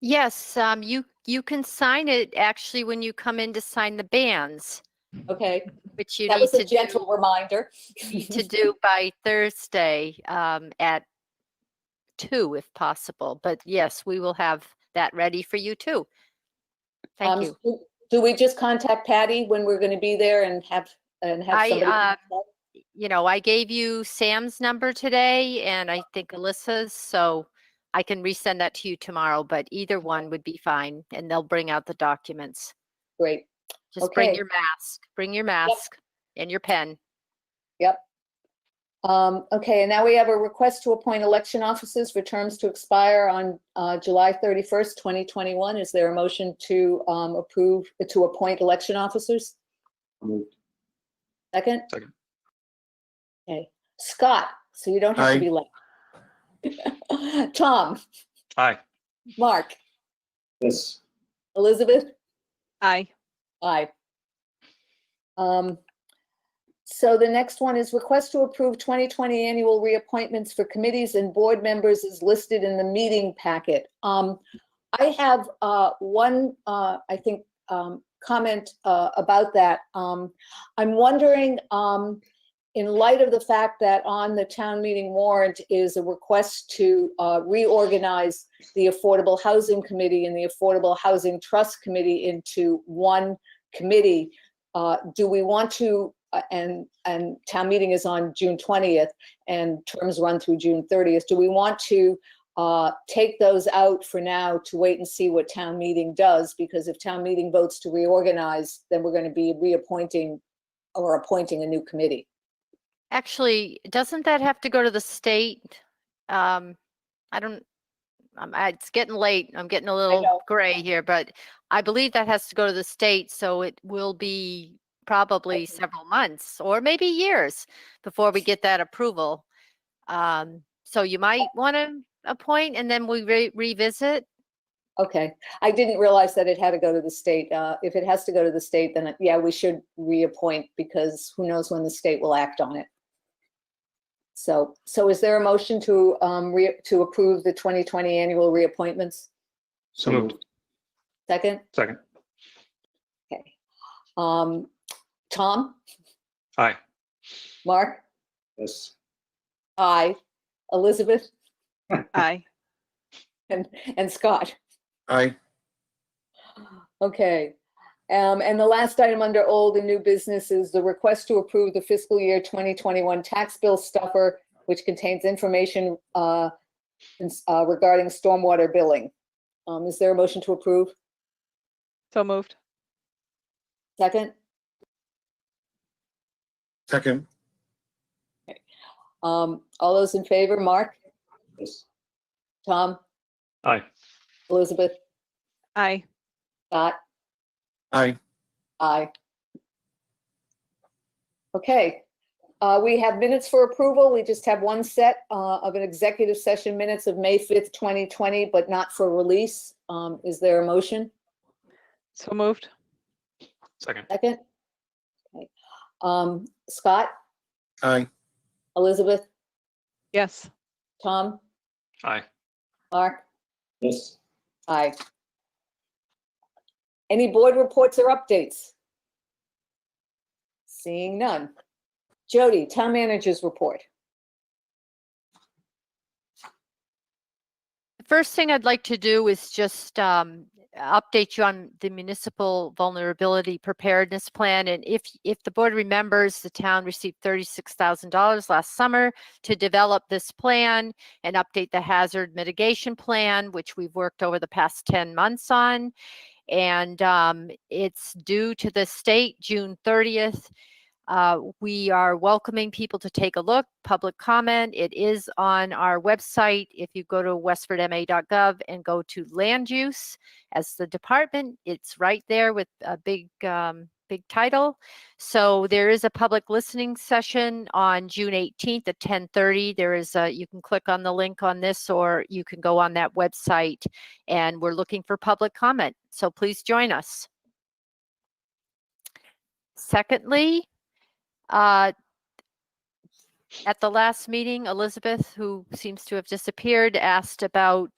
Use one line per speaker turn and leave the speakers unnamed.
Yes, um, you, you can sign it actually when you come in to sign the bands,
Okay,
which you
that
need
was
to
a
do,
gentle reminder.
need to do by Thursday, um, at two if possible. But yes, we will have that ready for you too.
Um,
Thank you.
do- Do we just contact Patty when we're going to be there and have, and have
I,
somebody?
uh, you know, I gave you Sam's number today and I think Alyssa's, so I can resend that to you tomorrow, but either one would be fine and they'll bring out the documents.
Great,
Just bring
Okay.
your mask, bring your mask and your pen.
yep. Um, Okay, and now we have a request to appoint election officers for terms to expire on uh, July 31st, 2021. Is there a motion to um, approve, to appoint election officers?
Moved.
Second?
Second.
Okay, Scott, so you don't have
Aye.
to be late. Tom,
Aye.
Mark,
Yes.
Elizabeth?
Aye.
Aye. Um, So the next one is request to approve 2020 annual reappointments for committees and board members is listed in the meeting packet. Um, I have uh, one, uh, I think, um, comment uh, about that. Um, I'm wondering, um, in light of the fact that on the town meeting warrant is a request to uh, reorganize the Affordable Housing Committee and the Affordable Housing Trust Committee into one committee. Uh, Do we want to, uh, and, and town meeting is on June 20th and terms run through June 30th. Do we want to uh, take those out for now to wait and see what town meeting does? Because if town meeting votes to reorganize, then we're going to be reappointing or appointing a new committee.
Actually, doesn't that have to go to the state? Um, I don't, um, I- it's getting late. I'm getting a
know.
little gray here, but I believe that has to go to the state, so it will be probably several months or maybe years before we get that approval. Um, so you might want to appoint and then we re- revisit.
Okay, I didn't realize that it had to go to the state. Uh, If it has to go to the state, then uh, yeah, we should reappoint because who knows when the state will act on it. So, so is there a motion to, um, re- to approve the 2020 annual reappointments?
So moved.
Second?
Second.
Okay. Um, Tom?
Aye.
Mark?
Yes.
I, Elizabeth?
Aye.
And, and Scott?
Aye.
Okay. Um, And the last item under old and new business is the request to approve the fiscal year 2021 tax bill stuffer, which contains information uh, ins- uh, regarding stormwater billing. Um, Is there a motion to approve?
So moved.
Second?
Second.
Um, All those in favor, Mark,
Yes.
Tom,
Aye.
Elizabeth,
Aye.
Scott?
Aye.
Aye. Okay, uh, we have minutes for approval. We just have one set uh, of an executive session minutes of May 5th, 2020, but not for release. Um, Is there a motion?
So moved.
Second.
Second? Okay. Um, Scott,
Aye.
Elizabeth,
Yes.
Tom,
Aye.
Mark?
Yes.
Aye. Any board reports or updates? Seeing none. Jody, town managers report.
The First thing I'd like to do is just um, update you on the municipal vulnerability preparedness plan. And if, if the board remembers, the town received $36,000 last summer to develop this plan and update the hazard mitigation plan, which we've worked over the past 10 months on. And um, it's due to the state June 30th. Uh, We are welcoming people to take a look, public comment. It is on our website. If you go to westfordma.gov and go to land use as the department, it's right there with a big, um, big title. So there is a public listening session on June 18th at 10:30. There is a, you can click on the link on this or you can go on that website. And we're looking for public comment. So please join us. Secondly, uh, At the last meeting, Elizabeth, who seems to have disappeared, asked about